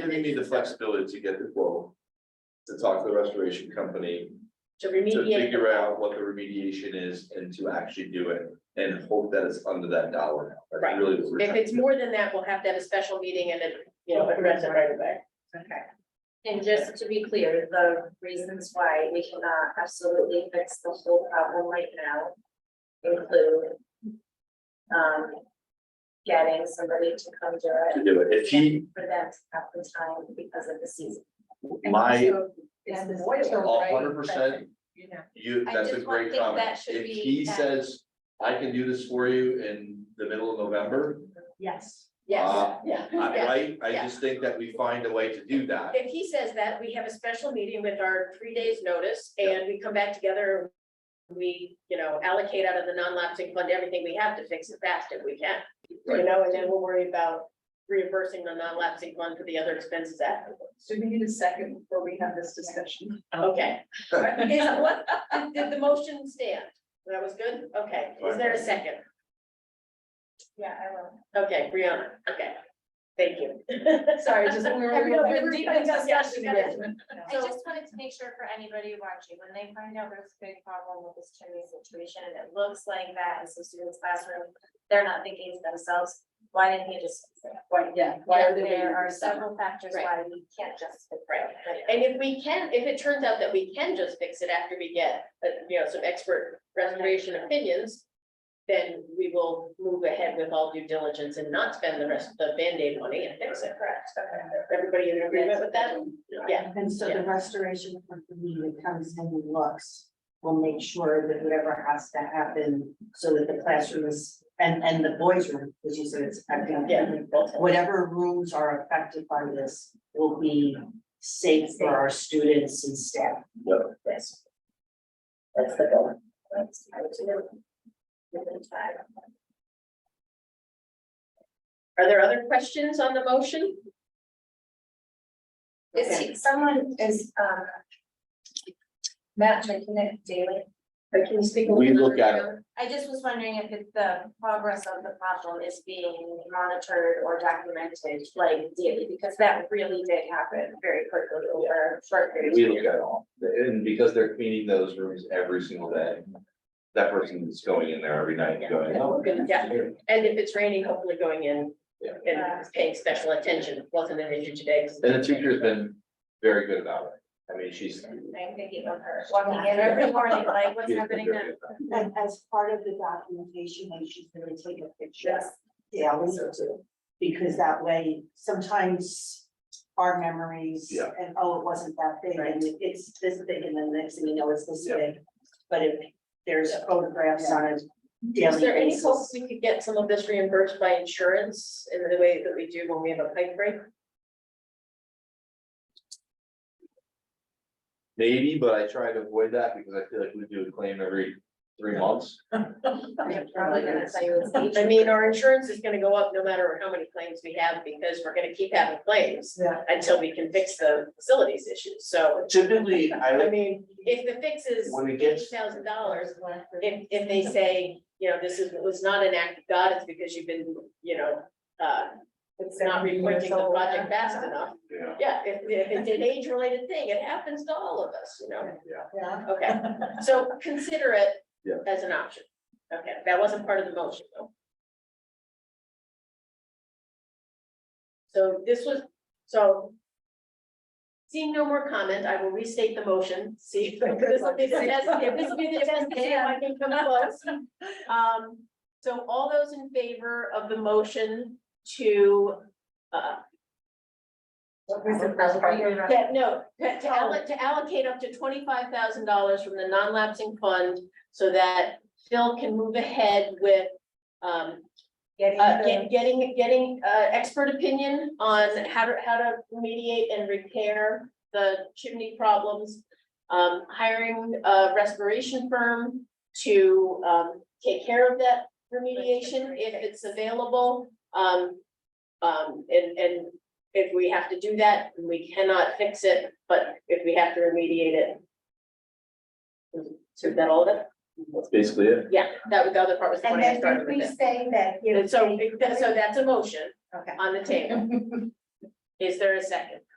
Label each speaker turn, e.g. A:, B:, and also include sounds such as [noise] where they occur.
A: giving me the flexibility to get the quote. To talk to the restoration company,
B: to
A: to
B: remediate,
A: figure out what the remediation is and to actually do it and hope that it's under that dollar. amount. That's
B: Right.
A: Really. what we're
B: if
A: trying
B: it's
A: to do.
B: more than that, we'll have to have a special meeting and, it, you know, address it right away.
C: Okay. And just to be clear, the reasons why we cannot absolutely fix the whole problem right now include um, getting somebody to come do
A: To
C: it
A: do it. If he,
C: for them to have the time because of the season.
A: my,
C: And the
A: a hundred percent,
C: You know.
A: you,
C: I
A: that's a
C: just don't
A: great
C: think
A: comment.
C: that should
A: If
C: be
A: he
C: that-
A: says, I can do this for you in the middle of November,
B: Yes. Yes,
A: Uh,
B: yeah.
C: [laughs]
B: yes.
A: I, I, I
B: yeah.
A: just think that we find a way to do that.
B: If he says that, we have a special meeting with our three days notice and we come back together. We, you know, allocate out of the non-lapsing fund everything we have to fix it fast if we can. You
A: Right.
B: know, and then we'll worry about reimbursing the non-lapsing fund for the other expenses afterwards.
D: So we need a second before we have this discussion.
B: Okay. Is what, did- did the motion stand? That was good? Okay. Is there a second?
C: Yeah, I will.
B: Okay, Brianna, okay. Thank you. [laughs]
D: Sorry, just when we
B: I know,
D: were having
B: we're
D: a deep
B: having a
D: discussion
B: discussion.
D: again.
C: I just wanted to make sure for anybody watching, when they find out there's a big problem with this chimney situation, and it looks like that in some students' classroom, they're not thinking to themselves, why didn't he just fix it?
D: Why, yeah, why are they? waiting
C: There
D: for
C: are
D: the summer?
C: several factors why we can't just fix
B: Right,
C: it.
B: right. And if we can, if it turns out that we can just fix it after we get, uh, you know, some expert restoration opinions. Then we will move ahead with all due diligence and not spend the rest of the Band-Aid money and fix it, correct? Everybody in agreement with that? Yeah,
E: And so the restoration company that comes in and looks, will make sure that whatever has to happen, so that the classroom is, and, and the boys room, which you said it's affecting.
B: yeah.
E: Whatever rooms are affected by this will be safe for our students and staff.
B: Yes. That's the goal.
C: Let's try to give it a try.
B: Are there other questions on the motion?
C: Is he, someone is, um, Matt making it daily?
B: Or Can you speak? a
A: We
B: little
A: look at it.
B: louder?
C: I just was wondering if it- the progress of the problem is being monitored or documented like daily, because that really did happen very quickly over a short periods.
A: We look at all, and because they're cleaning those rooms every single day, that person is going in there every night, going, oh.
B: Yeah. And if it's raining, hopefully going in
A: Yeah.
B: and paying special attention, wasn't an issue today. 'cause-
A: And the teacher's been very good about it. I mean, she's.
C: I'm thinking of her walking in every morning, like what's
A: she's been
C: happening
A: very
C: now?
A: good about it.
E: And as part of the documentation, they should really take a picture.
C: Yes.
E: Yeah, we do too. Because that way, sometimes our memories
A: Yeah.
E: and, oh, it wasn't that big and it's this big and then next thing you know, it's this
A: Yeah.
E: big. But if there's photographs on a
B: Is
E: daily
B: there any hope
E: basis.
B: we could get some of this reimbursed by insurance in the way that we do when we have a pipe break?
A: Maybe, but I try to avoid that because I feel like we do a claim every three months.
C: I'm probably gonna tell you it's each.
B: I mean, our insurance is gonna go up no matter how many claims we have because we're gonna keep having claims
D: Yeah.
B: until we can fix the facilities issues. So,
A: Typically, I
B: I
A: like,
B: mean, if the fix is
A: When it
B: eighty
A: gets-
B: thousand dollars, if, if they say, you know, this is, was not an act of God, it's because you've been, you know, uh, it's not reporting the project fast enough.
A: you know,
B: Yeah, if, if it's an age-related thing, it happens to all of us, you know?
D: Yeah.
B: Okay, so consider it
A: Yeah.
B: as an option. Okay, that wasn't part of the motion though. So this was, so. Seeing no more comment, I will restate the motion, see if this will be the test, if this will be the test, to see if I can come close. Um, so all those in favor of the motion to, uh,
C: What was the first part?
B: that, no, to to allo- to allocate up to twenty-five thousand dollars from the non-lapsing fund so that Phil can move ahead with um,
C: Getting
B: uh,
C: the-
B: get- getting, getting, uh, expert opinion on how to, how to mediate and repair the chimney problems. Um, hiring a restoration firm to, um, take care of that remediation if it's available. Um, um, and, and if we have to do that, we cannot fix it, but if we have to remediate it. So is that all of it?
A: that's basically it.
B: Yeah, that was the other part was the one I started with. it.
D: say that,
B: And so, so that's a motion
D: Okay.
B: on the table. Is there a second?